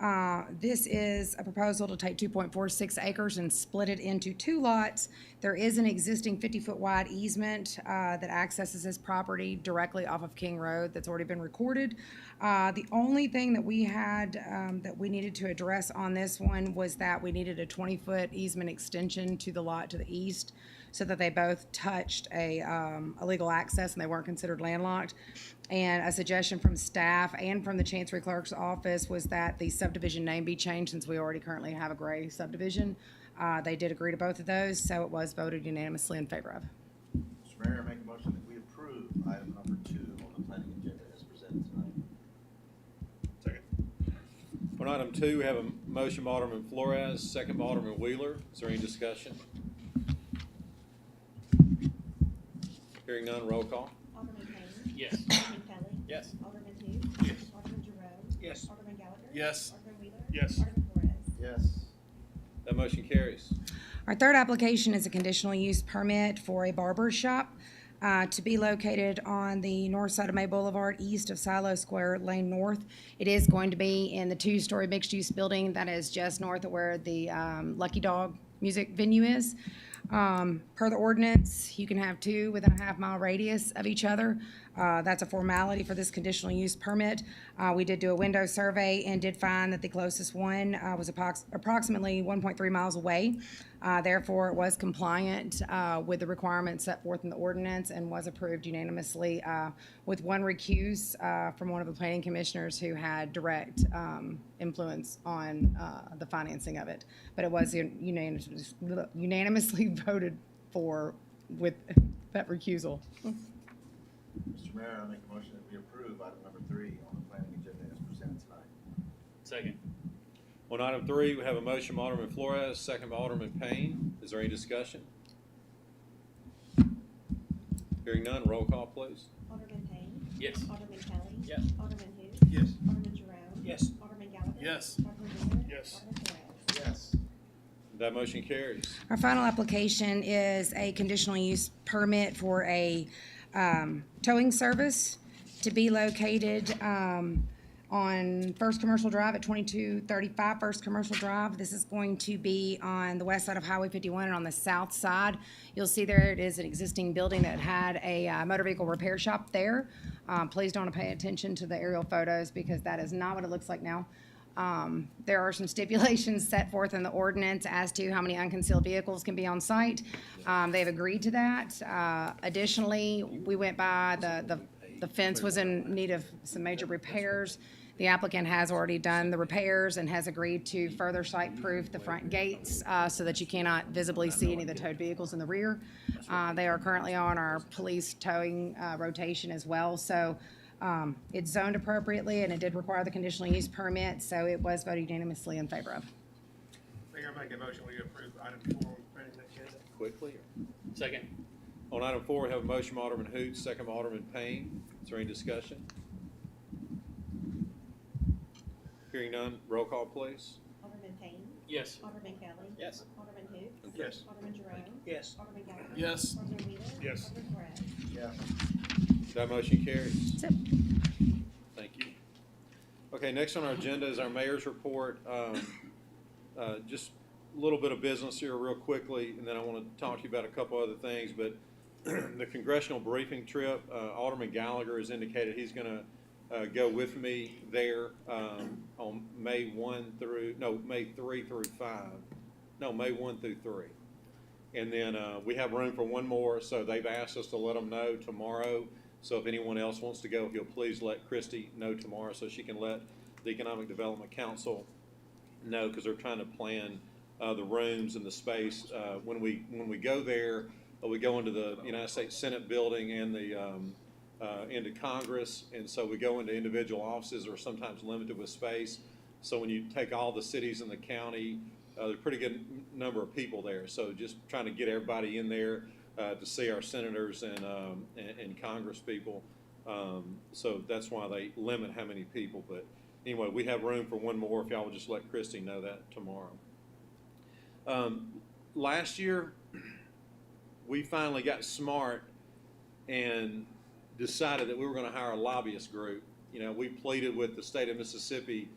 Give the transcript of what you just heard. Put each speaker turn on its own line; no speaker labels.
Uh, This is a proposal to take 2.46 acres and split it into two lots. There is an existing 50-foot wide easement uh, that accesses this property directly off of King Road that's already been recorded. Uh, The only thing that we had, um, that we needed to address on this one was that we needed a 20-foot easement extension to the lot to the east so that they both touched a, um, a legal access and they weren't considered landlocked. And a suggestion from staff and from the Chancery Clerk's office was that the subdivision name be changed since we already currently have a gray subdivision. Uh, they did agree to both of those, so it was voted unanimously in favor of.
Mr. Mayor, I make a motion that we approve item number two on the planning agenda as presented tonight.
On item two, we have a motion by Alderman Flores, second by Alderman Wheeler. Is there any discussion? Hearing none, roll call.
Alderman Payne.
Yes.
Alderman Kelly.
Yes.
Alderman who?
Yes.
Alderman Jerome.
Yes.
Alderman Gallagher.
Yes.
Alderman Wheeler.
Yes.
Alderman Flores.
Yes.
That motion carries.
Our third application is a conditional use permit for a barber shop uh, to be located on the north side of May Boulevard, east of Silo Square Lane North. It is going to be in the two-story mixed-use building that is just north of where the um, Lucky Dog Music Venue is. Um, Per the ordinance, you can have two within a half-mile radius of each other. Uh, That's a formality for this conditional use permit. Uh, We did do a window survey and did find that the closest one uh, was approx- approximately 1.3 miles away. Uh, Therefore, it was compliant uh, with the requirements set forth in the ordinance and was approved unanimously uh, with one recuse uh, from one of the planning commissioners who had direct um, influence on uh, the financing of it. But it was unanimous- unanimously voted for with that recusal.
Mr. Mayor, I make a motion that we approve item number three on the planning agenda as presented tonight.
Second.
On item three, we have a motion by Alderman Flores, second by Alderman Payne. Is there any discussion? Hearing none, roll call, please.
Alderman Payne.
Yes.
Alderman Kelly.
Yes.
Alderman who?
Yes.
Alderman Jerome.
Yes.
Alderman Gallagher.
Yes.
Alderman Wheeler.
Yes.
Alderman Flores.
Yes.
That motion carries.
Our final application is a conditional use permit for a um, towing service to be located um, on First Commercial Drive at 2235 First Commercial Drive. This is going to be on the west side of Highway 51 and on the south side. You'll see there it is an existing building that had a uh, motor vehicle repair shop there. Um, Please don't pay attention to the aerial photos because that is not what it looks like now. Um, There are some stipulations set forth in the ordinance as to how many unconcealed vehicles can be on site. Um, They've agreed to that. Uh, Additionally, we went by, the- the the fence was in need of some major repairs. The applicant has already done the repairs and has agreed to further site-proof the front gates uh, so that you cannot visibly see any of the towed vehicles in the rear. Uh, They are currently on our police towing uh, rotation as well, so um, It's zoned appropriately, and it did require the conditional use permit, so it was voted unanimously in favor of.
Mayor, I make a motion, we approve item four on the planning agenda.
Quickly.
Second.
On item four, we have a motion by Alderman Hoot, second by Alderman Payne. Is there any discussion? Hearing none, roll call, please.
Alderman Payne.
Yes.
Alderman Kelly.
Yes.
Alderman who?
Yes.
Alderman Jerome.
Yes.
Alderman Gallagher.
Yes.
Alderman Wheeler.
Yes.
Alderman Flores.
Yes.
That motion carries.
That's it.
Thank you. Okay, next on our agenda is our mayor's report. Um, uh, Just a little bit of business here real quickly, and then I want to talk to you about a couple other things. But the congressional briefing trip, uh, Alderman Gallagher has indicated he's going to go with me there um, on May 1 through, no, May 3 through 5. No, May 1 through 3. And then uh, we have room for one more, so they've asked us to let them know tomorrow. So if anyone else wants to go, if you'll please let Christy know tomorrow so she can let the Economic Development Council know, because they're trying to plan uh, the rooms and the space. Uh, When we, when we go there, uh, we go into the United States Senate building and the, um, uh, into Congress. And so we go into individual offices that are sometimes limited with space. So when you take all the cities in the county, uh, there's a pretty good n- number of people there. So just trying to get everybody in there uh, to see our senators and, um, and, and Congress people. Um, so that's why they limit how many people. But anyway, we have room for one more if y'all would just let Christy know that tomorrow. Um, last year, we finally got smart and decided that we were going to hire a lobbyist group. You know, we pleaded with the state of Mississippi